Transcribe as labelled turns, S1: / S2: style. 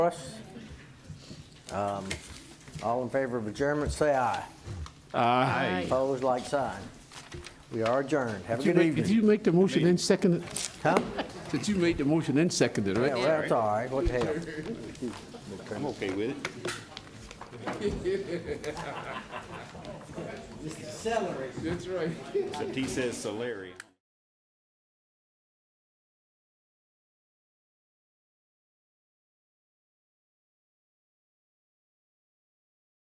S1: us. Um, All in favor of adjournment, say aye.
S2: Aye.
S1: Opposed, like sign. We are adjourned. Have a good
S2: Did
S1: evening.
S2: you make the motion and second it?
S1: Huh?
S2: Did you make the motion and second it,
S1: Yeah,
S2: right?
S1: well, that's all right. What the hell?
S3: I'm okay with it.
S2: That's right.
S3: Except he says Solari.